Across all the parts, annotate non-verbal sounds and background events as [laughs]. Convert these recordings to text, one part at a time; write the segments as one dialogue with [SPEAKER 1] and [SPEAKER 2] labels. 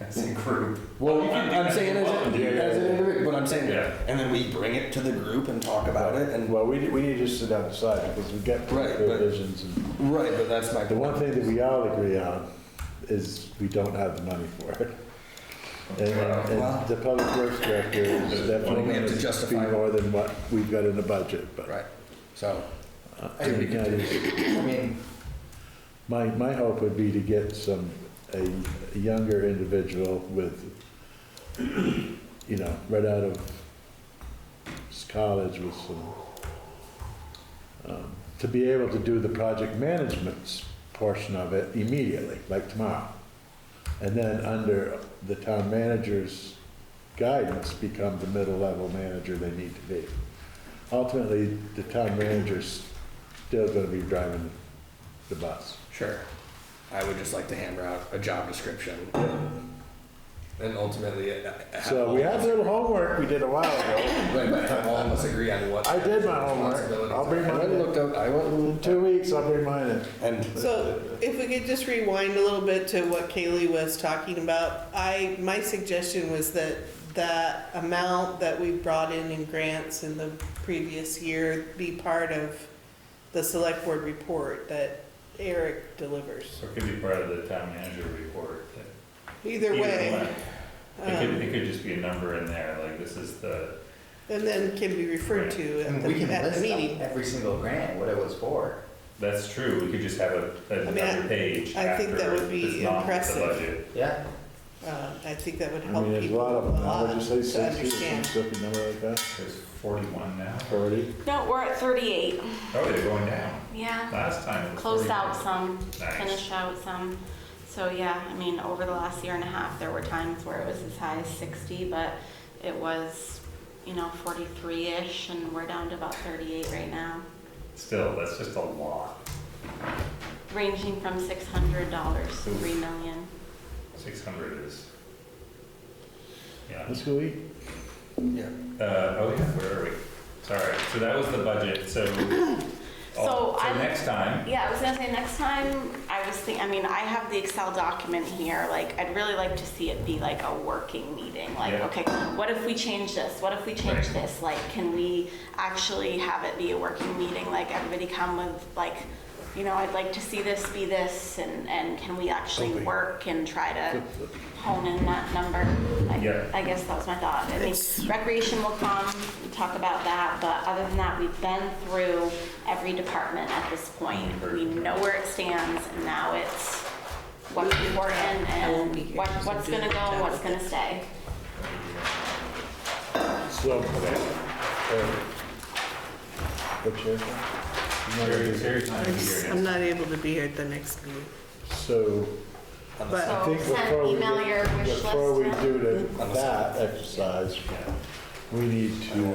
[SPEAKER 1] as a group.
[SPEAKER 2] Well, you
[SPEAKER 1] I
[SPEAKER 2] can,
[SPEAKER 1] think
[SPEAKER 2] I'm
[SPEAKER 1] that's
[SPEAKER 2] saying as, a-
[SPEAKER 1] what we do.
[SPEAKER 2] as an individual, but I'm saying,
[SPEAKER 1] Yeah.
[SPEAKER 2] and then we bring it to the group and talk about it, and
[SPEAKER 3] Well, we, we need to sit down and decide because we've got
[SPEAKER 2] Right, but-
[SPEAKER 3] provisions. and-
[SPEAKER 2] right, but that's my
[SPEAKER 3] The one thing that we all agree on is we don't have the money for it. And, and
[SPEAKER 2] Wow.
[SPEAKER 3] and the public works director is definitely
[SPEAKER 2] We have to
[SPEAKER 3] going to be
[SPEAKER 2] justify it.
[SPEAKER 3] more than what we've got in the budget, but.
[SPEAKER 2] Right. So
[SPEAKER 3] I
[SPEAKER 2] we
[SPEAKER 3] think
[SPEAKER 2] can
[SPEAKER 3] that
[SPEAKER 2] do-
[SPEAKER 3] is-
[SPEAKER 2] I mean,
[SPEAKER 3] My, my hope would be to get some, a a younger individual with, you know, right out of s- college with some, um, to be able to do the project management's portion of it immediately, like tomorrow. And then under the town manager's guidance, become the middle level manager they need to be. Ultimately, the town manager's still gonna be driving the bus.
[SPEAKER 2] sure. I would just like to hammer out a job description. And ultimately, uh, have
[SPEAKER 3] So we
[SPEAKER 2] all-
[SPEAKER 3] have a little homework we did a while ago.
[SPEAKER 2] Right, but have all of us agree on what.
[SPEAKER 3] I did my homework. I'll bring
[SPEAKER 2] I went
[SPEAKER 3] mine
[SPEAKER 2] and looked
[SPEAKER 3] in.
[SPEAKER 2] up, I went
[SPEAKER 3] In
[SPEAKER 2] and,
[SPEAKER 3] two weeks, I'll bring mine in.
[SPEAKER 2] and
[SPEAKER 4] So if we could just rewind a little bit to what Kaylee was talking about, I, my suggestion was that that amount that we brought in in grants in the previous year be part of the select board report that Eric delivers.
[SPEAKER 1] So it could be part of the town manager report. that-
[SPEAKER 4] Either way,
[SPEAKER 1] It could,
[SPEAKER 4] um,
[SPEAKER 1] it could just be a number in there, like this is the,
[SPEAKER 4] and then can be referred to
[SPEAKER 5] I
[SPEAKER 4] at
[SPEAKER 5] mean, we
[SPEAKER 4] the,
[SPEAKER 5] can
[SPEAKER 4] at the
[SPEAKER 5] list
[SPEAKER 4] meeting.
[SPEAKER 5] every single grant, what it was for.
[SPEAKER 1] that's true, we could just have a,
[SPEAKER 4] I mean, I-
[SPEAKER 1] another page
[SPEAKER 4] I think
[SPEAKER 1] after
[SPEAKER 4] that would be
[SPEAKER 1] it's not the
[SPEAKER 4] impressive.
[SPEAKER 1] budget.
[SPEAKER 5] Yeah,
[SPEAKER 4] Uh, I think that would
[SPEAKER 3] I
[SPEAKER 4] help
[SPEAKER 3] mean, there's a
[SPEAKER 4] people
[SPEAKER 3] lot of
[SPEAKER 4] a
[SPEAKER 3] them. I
[SPEAKER 4] lot
[SPEAKER 3] would just say
[SPEAKER 4] to
[SPEAKER 3] sixty or some
[SPEAKER 4] understand.
[SPEAKER 3] stupid number like that.
[SPEAKER 1] There's forty-one now.
[SPEAKER 3] Forty.
[SPEAKER 6] No, we're at 38.
[SPEAKER 1] Oh, they're going down.
[SPEAKER 6] Yeah.
[SPEAKER 1] Last time it was
[SPEAKER 6] Closed
[SPEAKER 1] 41.
[SPEAKER 6] out some,
[SPEAKER 1] Nice.
[SPEAKER 6] finished out some. So yeah, I mean, over the last year and a half, there were times where it was as high as 60, but it was, you know, 43-ish, and we're down to about 38 right now,
[SPEAKER 1] Still, that's just a lot.
[SPEAKER 6] ranging from $600 to 3 million.
[SPEAKER 1] Six hundred is. Yeah.
[SPEAKER 3] Let's go eat.
[SPEAKER 2] yeah.
[SPEAKER 1] Uh, oh yeah, where are we? Sorry, so that was the budget, so.
[SPEAKER 6] [laughs] So
[SPEAKER 1] Oh,
[SPEAKER 6] I'm-
[SPEAKER 1] next time,
[SPEAKER 6] Yeah, I was gonna say next time, I was thinking, I mean, I have the Excel document here, like, I'd really like to see it be like a working meeting, like,
[SPEAKER 1] Yeah.
[SPEAKER 6] okay, what if we change this? What if we change
[SPEAKER 1] Right.
[SPEAKER 6] this? Like, can we actually have it be a working meeting, like, everybody come with, like, you know, I'd like to see this be this, and, and can we actually
[SPEAKER 3] Okay.
[SPEAKER 6] work and try to hone in that number? Like,
[SPEAKER 1] Yeah.
[SPEAKER 6] I guess that was my thought. I mean,
[SPEAKER 4] It's-
[SPEAKER 6] recreation will come, and talk about that, but other than that, we've been through every department at this point. We know where it stands, and now it's what's important and what- what's gonna go, what's gonna stay.
[SPEAKER 3] So. What's your?
[SPEAKER 1] Terry, Terry's not gonna be here next
[SPEAKER 4] I'm not able to be here at the next meeting.
[SPEAKER 3] So
[SPEAKER 4] But
[SPEAKER 3] I
[SPEAKER 6] So
[SPEAKER 3] think
[SPEAKER 6] Oh, send
[SPEAKER 3] before we,
[SPEAKER 6] email your
[SPEAKER 3] get-
[SPEAKER 6] wish
[SPEAKER 3] before we
[SPEAKER 6] list. to-
[SPEAKER 3] do the- that exercise, we need to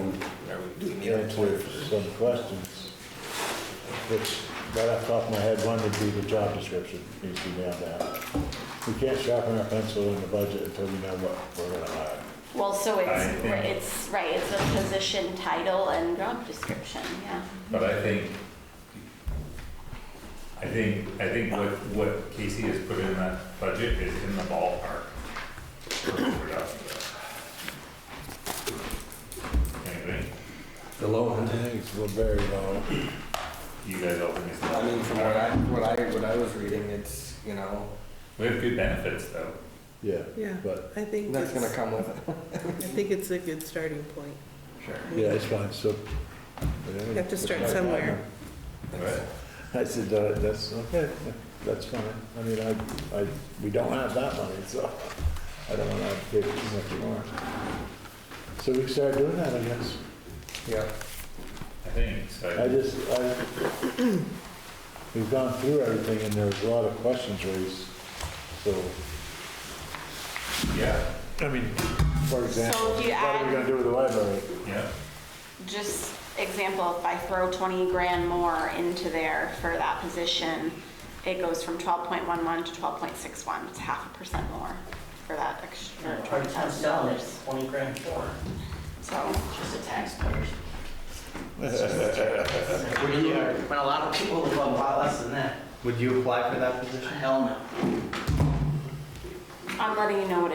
[SPEAKER 3] answer some questions. Which, right off the top of my head, one would be the job description, needs to be nailed down. We can't sharpen our pencil in the budget until we know what we're gonna hire.
[SPEAKER 6] Well, so it's,
[SPEAKER 1] I think-
[SPEAKER 6] it's, right, it's a position title and job description, yeah.
[SPEAKER 1] But I think, I think, I think what, what Casey has put in that budget is in the ballpark. for production. Anyway,
[SPEAKER 2] The low
[SPEAKER 3] I think it's a very low.
[SPEAKER 1] you guys all think it's.
[SPEAKER 2] I mean, from what I, what I, what I was reading, it's, you know,
[SPEAKER 1] We have good benefits though.
[SPEAKER 3] Yeah,
[SPEAKER 4] Yeah,
[SPEAKER 3] but,
[SPEAKER 4] I think
[SPEAKER 2] that's gonna
[SPEAKER 4] it's-
[SPEAKER 2] come with it.
[SPEAKER 4] I think it's a good starting point.
[SPEAKER 2] Sure.
[SPEAKER 3] yeah, it's fine, so.
[SPEAKER 4] You have to start somewhere.
[SPEAKER 1] Right.
[SPEAKER 3] I said, uh, that's, okay, that's fine. I mean, I, I, we don't have that money, so I don't wanna pay too much more. So we can start doing that, I guess.
[SPEAKER 2] Yeah.
[SPEAKER 1] I think,
[SPEAKER 3] I
[SPEAKER 1] so,
[SPEAKER 3] just, I, we've gone through everything and there's a lot of questions raised, so.
[SPEAKER 1] yeah,
[SPEAKER 3] I mean. For example,
[SPEAKER 6] So
[SPEAKER 3] what
[SPEAKER 6] do you
[SPEAKER 3] are we
[SPEAKER 6] add-
[SPEAKER 3] gonna do with the library?
[SPEAKER 1] yeah.
[SPEAKER 6] Just example, if I throw 20 grand more into there for that position, it goes from 12.11 to 12.61. It's half a percent more for that extra $20,000.
[SPEAKER 5] twenty grand more.
[SPEAKER 6] So,
[SPEAKER 5] just the [laughs] taxpayers. uh, When a lot of people live on a lot less than that. Would you apply for that position? Hell no.
[SPEAKER 6] I'm letting you know what it